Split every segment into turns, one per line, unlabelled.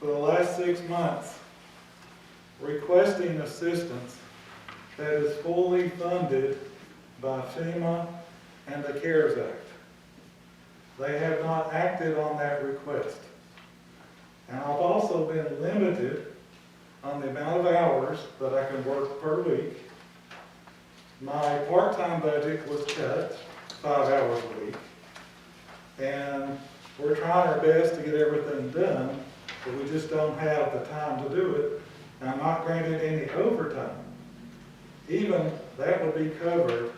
for the last six months requesting assistance that is fully funded by FEMA and the CARES Act. They have not acted on that request. And I've also been limited on the amount of hours that I can work per week. My part-time budget was cut, five hours a week. And we're trying our best to get everything done, but we just don't have the time to do it. And I'm not granted any overtime. Even that would be covered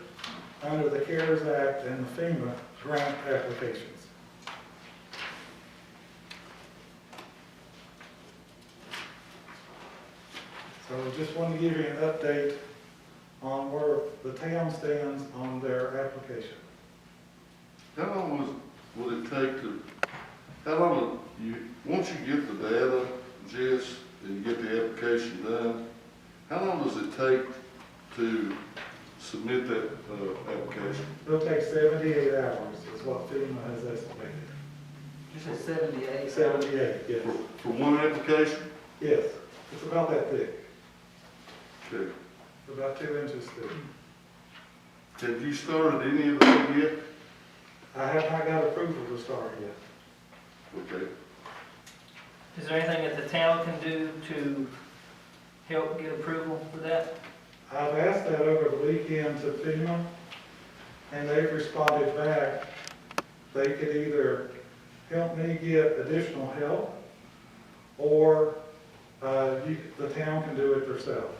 under the CARES Act and the FEMA grant applications. So I just want to give you an update on where the town stands on their application.
How long was, would it take to, how long, would you, once you get the data, Jess, and get the application done, how long does it take to submit that, uh, application?
It'll take seventy-eight hours is what FEMA has estimated.
You said seventy-eight?
Seventy-eight, yes.
For, for one application?
Yes, it's about that thick,
Okay.
about two inches thick.
Have you started any of that yet?
I have not got approval to start yet.
Okay.
Is there anything that the town can do to help get approval for that?
I've asked that over the weekend to FEMA, and they've responded back. They could either help me get additional help, or uh, you- the town can do it themselves.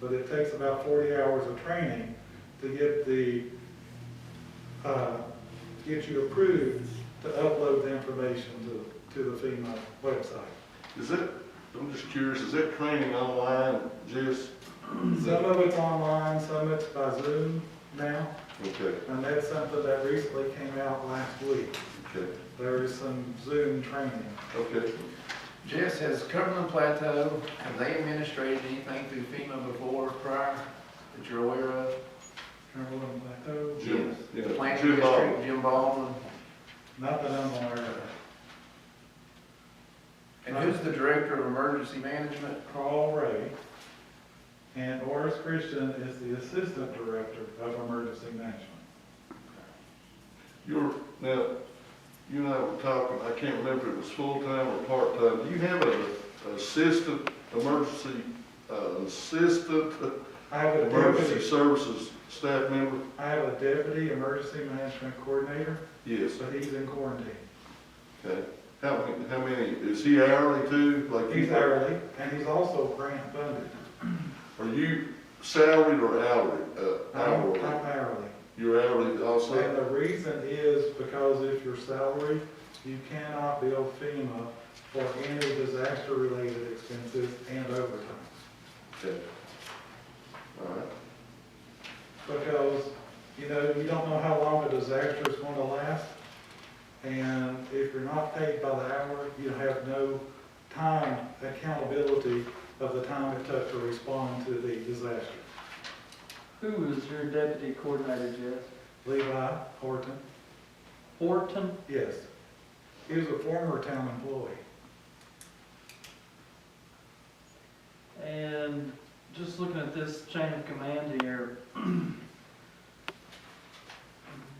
But it takes about 40 hours of training to get the, uh, get you approved to upload the information to to the FEMA website.
Is that, I'm just curious, is that training online, Jess?
Some of it's online, some of it's by Zoom now.
Okay,
And that's something that recently came out last week.
okay,
There is some Zoom training.
okay.
Jess, has Cumberland Plateau, have they administrated anything through FEMA before, prior, that you're aware of?
Cumberland Plateau,
Jim, yeah.
Planning
Jim Ball.
District, Jim Baldwin,
not that I'm aware of.
and who's the Director of Emergency Management?
Carl Ray. And Oris Christian is the Assistant Director of Emergency Management.
You're, now, you and I were talking, I can't remember if it was full-time or part-time. Do you have an assistant, emergency, uh, assistant,
I have a
emergency
deputy,
services staff member?
I have a deputy emergency management coordinator,
Yes,
but he's in quarantine.
okay. How, many- how many, is he hourly too? Like
He's
you?
hourly, and he's also grant funded.
Are you salaried or hourly, uh,
I'm
hourly?
I'm hourly.
You're hourly
And
also?
the reason is because if your salary, you cannot bill FEMA for any disaster-related expenses and overtime.
Okay. All right,
Because, you know, you don't know how long a disaster is going to last. And if you're not paid by the hour, you have no time accountability of the time it took to respond to the disaster.
Who is your deputy coordinator, Jess?
Levi Horton,
Horton?
yes. He was a former town employee.
And just looking at this chain of command here,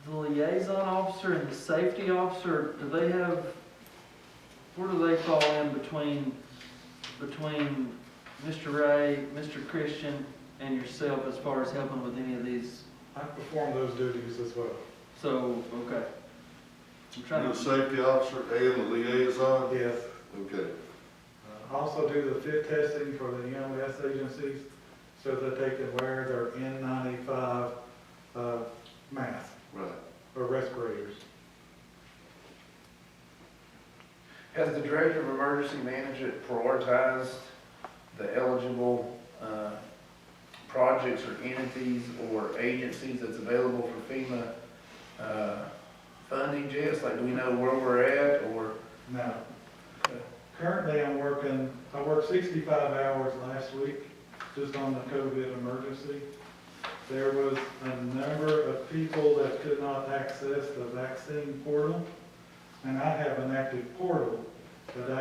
the liaison officer and the safety officer, do they have, where do they fall in between, between Mr. Ray, Mr. Christian, and yourself as far as helping with any of these?
I performed those duties as well.
So, okay. I'm
you're
trying
the
to,
safety officer and the liaison?
Yes.
Okay,
I Uh, Also do the fit testing for the EMS agencies so that they can wear their N95 uh, mask
right.
or respirators.
Has the Director of Emergency Management prioritized the eligible, uh, projects or entities or agencies that's available for FEMA, uh, funding, Jess? Like, do we know where we're at, or?
Now, currently I'm working, I worked 65 hours last week just on the COVID emergency. There was a number of people that could not access the vaccine portal, and I have an active portal that I